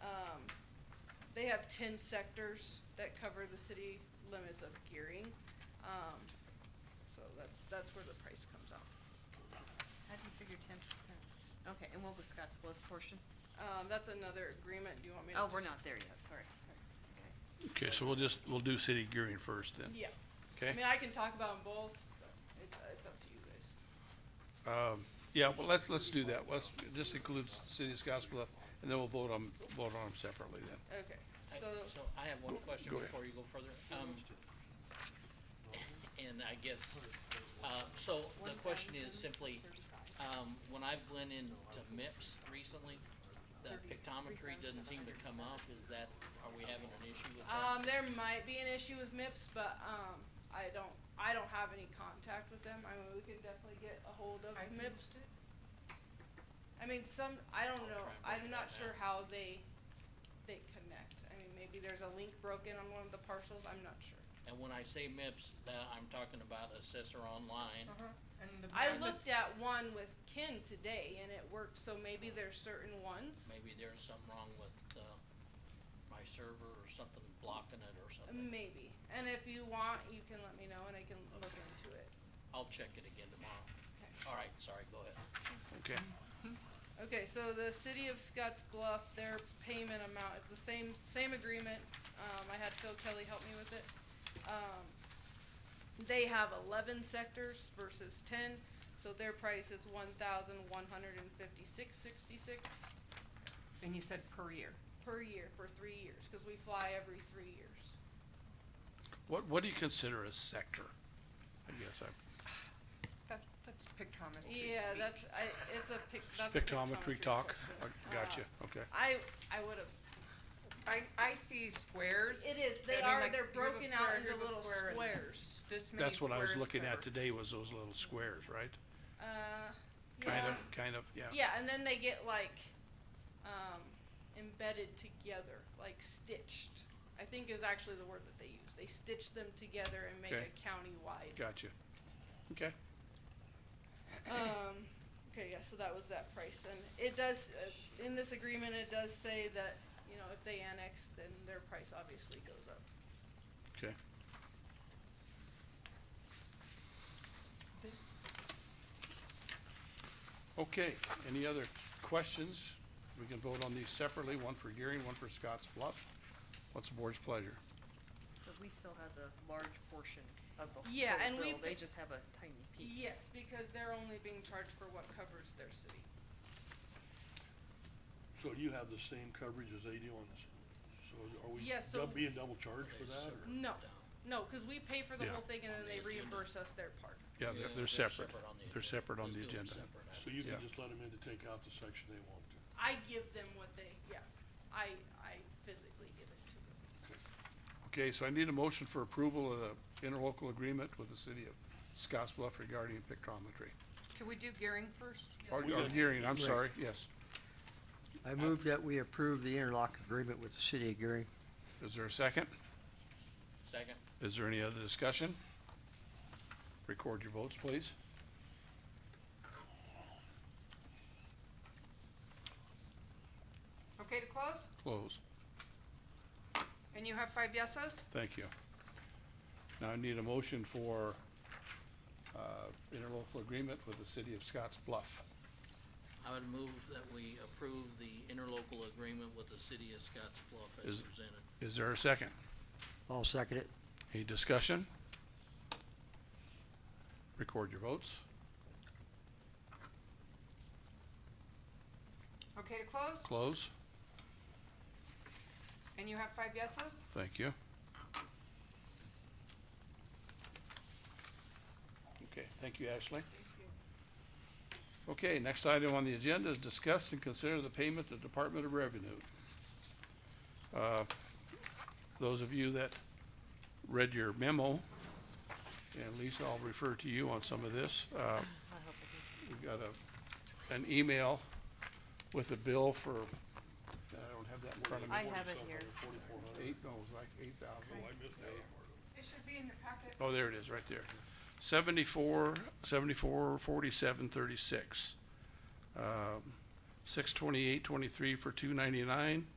got Um, ten sectors that cover the city limits of gearing. Um, so that's, that's where the price comes out. How do you figure ten percent? Okay, and what was Scott's lowest portion? Um, that's another agreement, do you want me to? Oh, we're just- not there yet, sorry, sorry. Okay. Okay, so we'll just, we'll do city gearing first then, Yeah, I okay? mean, I can talk about them both, but it's, it's up to you guys. Um, yeah, well, let's, let's do that, let's, just include city of Scottsbluff, and then we'll vote on, vote on them separately then. Okay, I- so, So I have one Go- question go ahead. before you go further. Um, And I guess, uh, so the question is simply, um, when I've went into MIPS recently, the pictometry doesn't seem to come up. Is that, are we having an issue with um, that? there might be an issue with MIPS, but, um, I don't, I don't have any contact with them, I mean, we could definitely get a hold of MIPS. I mean, some, I don't I'll know, try I'm and work it not out sure how they, they connect, I mean, maybe there's a link broken on one of the parcels, I'm not sure. And when I say MIPS, uh, I'm talking about Assessor Online. Uh-huh. And the I brand looked that's- at one with Kin today and it worked, so maybe there's certain ones, Oh. Maybe there's something wrong with, uh, my server or something blocking it or something. maybe, and if you want, you can let me know and I can look into it. I'll check it again tomorrow. Okay. All right, sorry, go ahead. Okay, Okay, so the city of Scotts Bluff, their payment amount, it's the same, same agreement, um, I had Phil Kelly help me with it. Um, they have eleven sectors versus ten, so their price is one thousand one hundred and fifty-six sixty-six And you said per year. per year for three years, cause we fly every three years. what, what do you consider a sector? I guess I, That, that's pictometry Yeah, that's, I, it's a pic, that's a Uh, Spectrometry talk, question. I got you, okay. I, I would've, I, I see squares. it is, they I mean, are, like, they're here's a broken square, out into here's a little square, and squares. This many That's what I was squares looking at covered. today was those little squares, right? Uh, Kind yeah, of, kind of, yeah. yeah, and then they get like, um, embedded together, like stitched. I think is actually the word that they use. They stitch them together and make Okay. a countywide. Gotcha. Okay, Um, okay, yeah, so that was that price, and it does, uh, in this agreement, it does say that, you know, if they annex, then their price obviously goes up. okay. This Okay, any other questions? We can vote on these separately, one for Gearing, one for Scotts Bluff. What's the board's pleasure? So we still have the large portion of the Yeah, and whole bill, we've they been- just have a tiny piece. Yes, because they're only being charged for what covers their city. So you have the same coverage as they do on this, so are we Yeah, so- dub- being double charged for that, or? No, no, cause we pay for the Yeah. whole thing and then On they the agenda. reimburse us their part. Yeah, Yeah, they're, they're separate. on the They're agenda. separate on Let's the do them agenda. separate. I So you Yeah. can just let them in to take out the section they want to? I give them what they, yeah, I, I physically give it to them. Okay, so I need a motion for approval of the interlocal agreement with the city of Scotts Bluff regarding pictometry. Can we do gearing first? Or, We or got- Gearing, I'm Right. sorry, yes. I move that we approve the interlock agreement with the city of Gary. Is there a second? Second. Is there any other discussion? Record your votes, please. Okay to close? Close. And you have five yeses? Thank you. Now I need a motion for, uh, interlocal agreement with the city of Scotts Bluff. I would move that we approve the interlocal agreement with the city of Scotts Bluff as Is- presented. Is there a second? I'll second it. Any discussion? Record your votes. Okay to close? Close. And you have five yeses? Thank you. Okay, thank you, Ashley. Okay, next item on the agenda is discuss and consider the payment to Department of Revenue. Uh, Those of you that read your memo, and Lisa, I'll refer to you on some of this. uh, We got a, an email with a bill for, I don't have that in front of me. I have it here. Forty-four hundred, Eight, no, it was like eight thousand. oh, I missed that part. It should be in your packet. Oh, there it is, right there. Seventy-four, seventy-four, forty-seven, Um, thirty-six. Six twenty-eight, twenty-three for two ninety-nine,